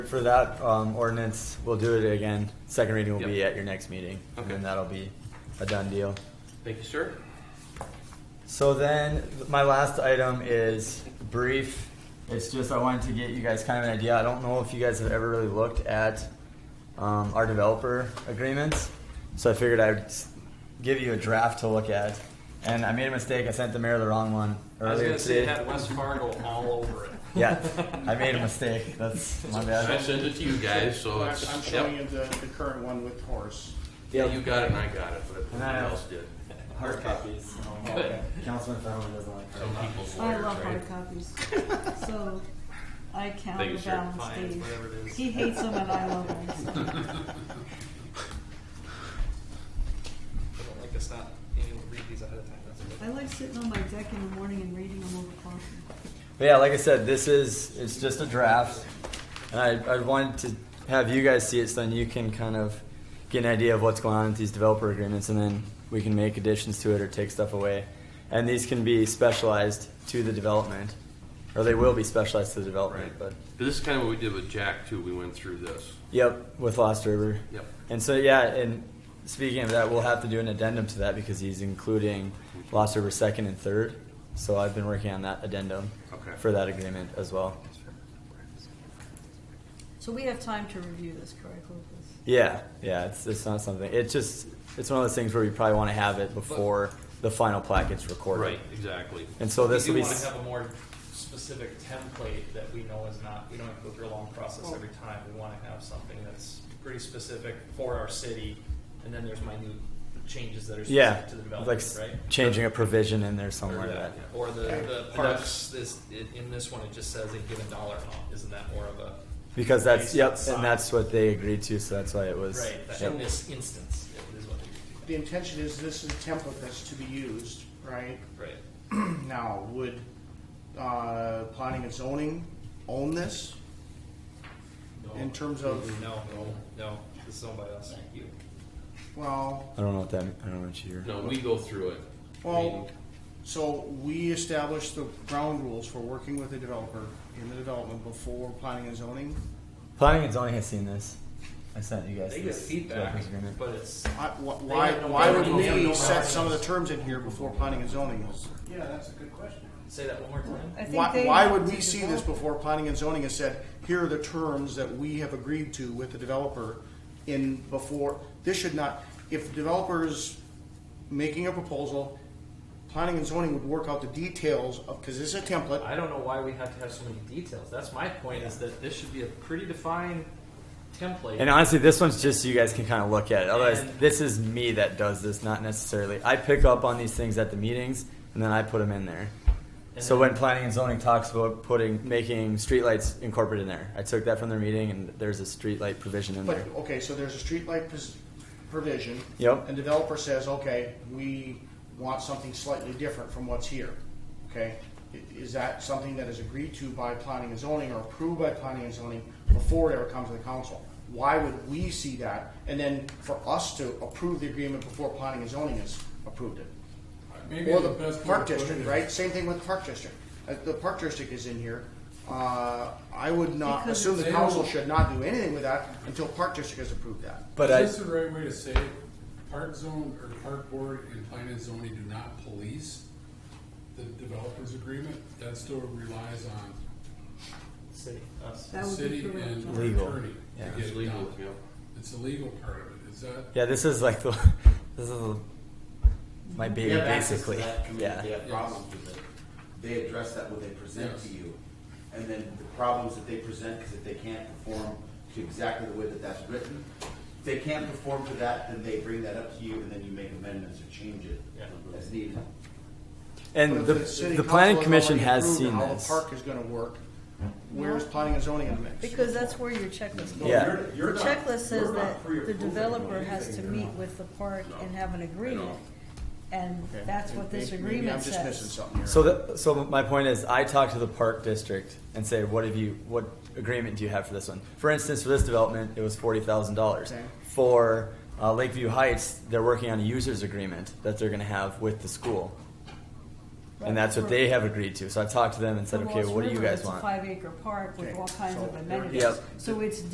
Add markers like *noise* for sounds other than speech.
For that um, ordinance, we'll do it again. Second reading will be Yep. at your next meeting, and Okay. then that'll be a done deal. Thank you, sir. So then, th- my last item is brief. It's just I wanted to get you guys kind of an idea. I don't know if you guys have ever really looked at um, our developer agreements, so I figured I'd s- give you a draft to look at. And I made a mistake. I sent the mayor the wrong one I was earlier gonna say it today. had West Fargo all over it. Yeah, I made a mistake. That's my I bad. sent it to you guys, so I'm it's, I'm showing yep. you the, the current one with horse. Yeah, you got it and I got it, but I no one know. else did. *laughs* Hard copies. Oh, okay. Councilman Fallon doesn't like hard Some copies. people's Oh, I lawyers, love right? hard *laughs* copies. So I count Thank you, the sir. balance Fines, days. whatever it is. He hates them and *laughs* I love them. so. I don't like us not being able to read these ahead of time. That's I like sitting on my deck in the morning and reading them over coffee. But yeah, like I said, this is it's just a draft, and I I wanted to have you guys see it so then you can kind of get an idea of what's going on with these developer agreements, and then we can make additions to it or take stuff away. And these can be specialized to the development, or they will be specialized to the development. Right. But But this is kind of what we did with Jack too. We went through this. yep, with Lost River. Yep. And so yeah, and speaking of that, we'll have to do an addendum to that because he's including Lost River second and third. So I've been working on that addendum Okay. for that agreement as well. So we have time to review this, correct, Lucas? Yeah, yeah, it's, it's not something. It's just it's one of those things where you probably want to have it before the final plat gets recorded. Right, exactly. And so this we will be do want s- to have a more specific template that we know is not. We don't have to go through a long process every time. We want to have something that's pretty specific for our city, and then there's minute changes that are specific yeah, to the like development, s- right? changing a provision in there somewhere. Or, that, the- or the, the Yeah. parks, this, it- in this one, it just says a given dollar amount, isn't that more of a, Because that's Based yep, on and size. that's what they agreed to. So that's why it was. right, that- yep. in this instance, it is what they, The intention is this is a template that's to be used, right? *clears throat* right? Now, would, uh, planning and zoning own this? In terms of, No, no, this is owned by us, you. well, I don't know what that. I don't know what you're. No, we go through it. well, so we established the ground rules for working with the developer in the development before planning and zoning. Planning and zoning has seen this. I sent you guys. They get this feedback, development agreement. but it's, I- wh- Why, have no why would boundaries. They have we no set some of the boundaries. terms in here before planning and zoning is? Yeah, that's a good question. say that one more time. I think Why, they why have would to we see this develop- before planning and zoning has said, here are the terms that we have agreed to with the developer in before, this should not, if the developer's making a proposal, planning and zoning would work out the details of, cause this is a template, I don't know why we have to have so many details, that's my point, is that this should be a pretty defined template. And honestly, this one's just so you guys can kind of look at it. Otherwise, And- this is me that does this, not necessarily. I pick up on these things at the meetings, and then I put them in there. And So then- when planning and zoning talks about putting making streetlights incorporated in there, I took that from their meeting, and there's a streetlight provision in but, there. okay, so there's a streetlight pos- provision. Yep. And developer says, okay, we want something slightly different from what's here, okay? I- Is that something that is agreed to by planning and zoning or approved by planning and zoning before it ever comes to the council? Why would we see that and then for us to approve the agreement before planning and zoning has approved it? Maybe Or the the best way park to put it district, is- right? Same thing with the park district. Uh, The park district is in here. Uh, I would not Because assume the it's- council should not do anything with that until park district has approved that. But I, Is this the right way to say, it? park zone or park board and planning and zoning do not police the developer's agreement? That still relies on City, us. the That would be city correct. and yeah. or Legal. attorney to Yeah. get It's it legal, done. yeah. It's the legal part of it, is that? yeah, this is like the *laughs* this is the- my baby We have access to basically. that community. Yeah, They have Yeah. problems with it. They address that when they present Yes. to you. And then the problems that they present is if they can't perform to exactly the way that that's written. If they can't perform to that, then they bring that up to you and then you make amendments or change it Yeah. as needed. and But the if city the planning council has commission already has approved seen how this. the park is gonna work, where's planning and zoning in the mix? Because that's where your checklist goes. Yeah. You're- The you're not- checklist says you're not that free of the approval. developer has to You're meet not. with the park No. and have an agreement. And Okay. that's what this Maybe- maybe agreement I'm just missing says. something here. So, the, so my point is, I talk to the park district and say, "What have you? What agreement do you have for this one?" For instance, for this development, it was forty thousand dollars. Okay. For uh, Lakeview Heights, they're working on a users agreement that they're going to have with the school. Right. And that's what they have agreed to. So I talked to them and said, The okay, Lost what do you River, guys it's a want? Five acre park with Okay, all kinds so of there it amenities. is. Yep. So it's